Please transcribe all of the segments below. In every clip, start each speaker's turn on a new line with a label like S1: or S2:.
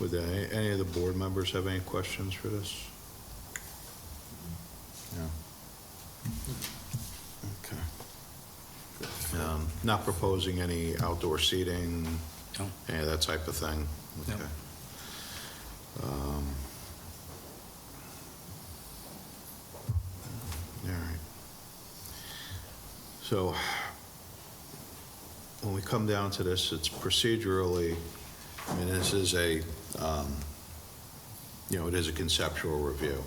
S1: Would any, any of the board members have any questions for this? No. Okay. Um, Not proposing any outdoor seating,
S2: No.
S1: any of that type of thing?
S2: No.
S1: Okay. Um, All right. So when we come down to this, it's procedurally, I mean, this is a, um, you know, it is a conceptual review.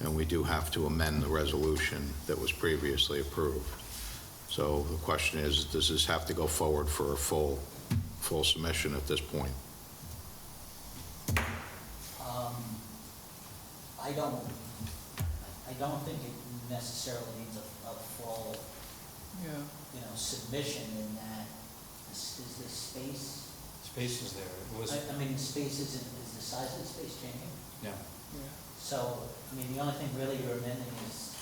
S1: And we do have to amend the resolution that was previously approved. So the question is, does this have to go forward for a full, full submission at this point?
S3: Um, I don't, I don't think it necessarily needs a, a full,
S4: Yeah,
S3: you know, submission in that, is, is the space,
S2: Space is there, it was,
S3: I, I mean, space isn't, is the size of the space changing?
S2: no,
S4: yeah.
S3: So, I mean, the only thing really you're amending is.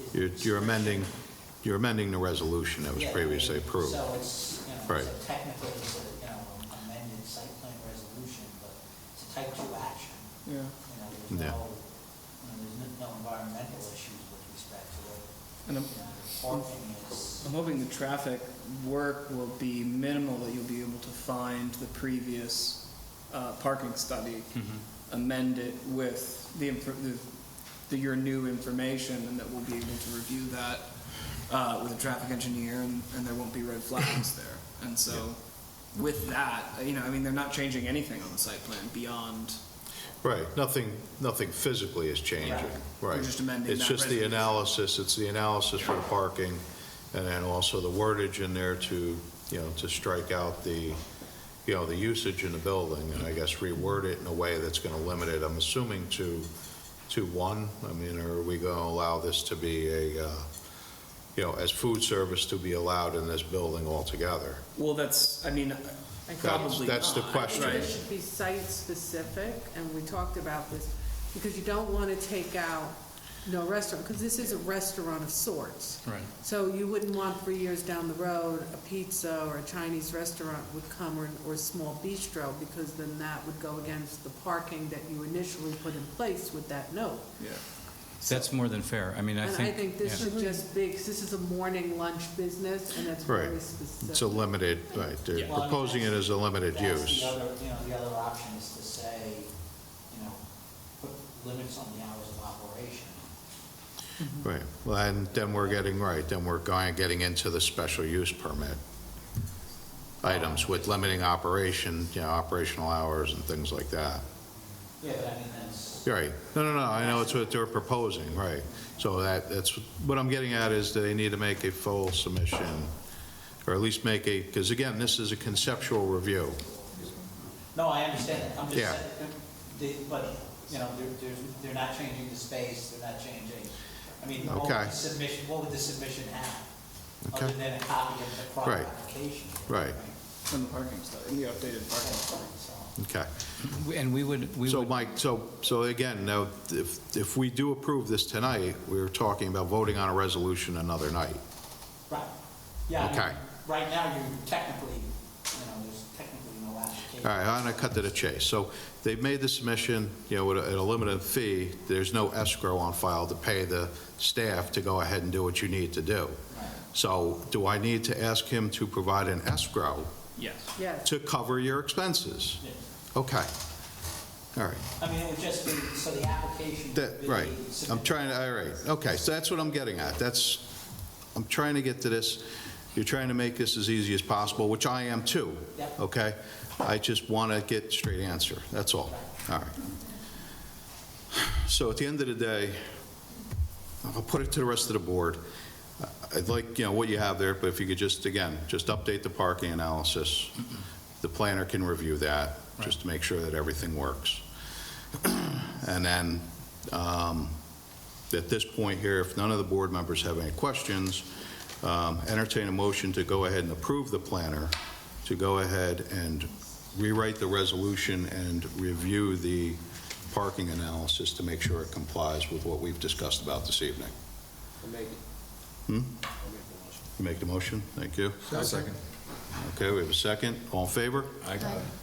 S3: is the
S1: You're you're amending,
S3: description.
S1: you're amending the resolution that was
S3: Yeah, I mean,
S1: previously approved.
S3: So it's, you know,
S1: Right.
S3: it's a technically, it's a, you know, amended site plan resolution, but it's a type two action.
S4: yeah.
S3: You know,
S1: Yeah.
S3: there's no, you know, there's no- no environmental issues with respect to it.
S4: And I'm,
S3: You know, the parking is,
S4: I'm hoping the traffic work will be minimal, that you'll be able to find the previous uh, parking study,
S1: Mm-hmm.
S4: amend it with the, infor- the- the, your new information, and that we'll be able to review that uh, with a traffic engineer, and, and there won't be red flags there. And so with that, you know, I mean, they're not changing anything on the site plan beyond,
S1: Right, nothing, nothing physically is changing, right.
S4: We're just amending
S1: It's
S4: that
S1: just the
S4: resolution.
S1: analysis, it's the analysis for the parking, and then also the wordage in there to, you know, to strike out the, you know, the usage in the building, and I guess reword it in a way that's gonna limit it, I'm assuming to, to one, I mean, are we gonna allow this to be a, uh, you know, as food service to be allowed in this building altogether?
S4: well, that's, I mean,
S5: I think-
S4: probably
S1: that's the
S4: not,
S1: question.
S5: I think
S4: right?
S5: It should be site-specific, and we talked about this, because you don't want to take out no restaurant, because this is a restaurant of sorts.
S2: right.
S5: So you wouldn't want three years down the road, a pizza or a Chinese restaurant would come, or, or a small bistro, because then that would go against the parking that you initially put in place with that note.
S4: Yeah.
S2: That's more than fair, I mean, I
S5: And
S2: think.
S5: I think this
S2: yeah.
S5: should just be, because this is a morning lunch business, and that's very
S1: Right.
S5: specific.
S1: It's a limited, right, they're
S3: Well, I mean,
S1: proposing it as a limited
S3: that's
S1: use.
S3: the other, you know, the other option is to say, you know, put limits on the hours of operation.
S1: Right, well, and then we're getting, right, then we're going, getting into the special use permit items with limiting operation, you know, operational hours and things like that.
S3: Yeah, but I mean, that's,
S1: Right, no, no, no, I know it's what they're proposing, right. So that, that's, what I'm getting at is they need to make a full submission, or at least make a, because again, this is a conceptual review.
S3: no, I understand that, I'm just
S1: Yeah.
S3: saying, the- but, you know, they're, they're, they're not changing the space, they're not changing, I mean, what would
S1: Okay.
S3: the submission, what would the submission have?
S1: Okay.
S3: Other than a copy of the
S1: Right.
S3: prior application.
S1: Right.
S4: And the parking study, and the updated parking study.
S3: So-
S1: Okay.
S2: And we would, we
S1: So
S2: would,
S1: Mike, so, so again, now, if, if we do approve this tonight, we're talking about voting on a resolution another night.
S3: Right, yeah. I mean,
S1: Okay.
S3: Right now, you technically, you know, there's technically no application.
S1: All right, I'm going to cut to the chase. So they've made the submission, you know, at a- at a limited fee. There's no escrow on file to pay the staff to go ahead and do what you need to do. So do I need to ask him to provide an escrow
S4: Yes.
S5: Yes.
S1: to cover your expenses?
S3: Yeah.
S1: Okay. All right.
S3: I mean, it would just be, so the application.
S1: That,
S3: would be
S1: right, I'm
S3: submitted.
S1: trying to, all right, okay, so that's what I'm getting at, that's, I'm trying to get to this, you're trying to make this as easy as possible, which I am too,
S3: Yep.
S1: okay? I just want to get straight answer, that's all, all right. So at the end of the day, I'll put it to the rest of the board, I'd like, you know, what you have there, but if you could just, again, just update the parking analysis, the planner can review that, just to make sure that everything works. And then, um, at this point here, if none of the board members have any questions, um, entertain a motion to go ahead and approve the planner, to go ahead and rewrite the resolution and review the parking analysis to make sure it complies with what we've discussed about this evening. I'll make it. Hmm? I'll make the motion. You make the motion? Thank you.
S6: Second.
S1: Okay, we have a second. All in favor?
S6: I got it.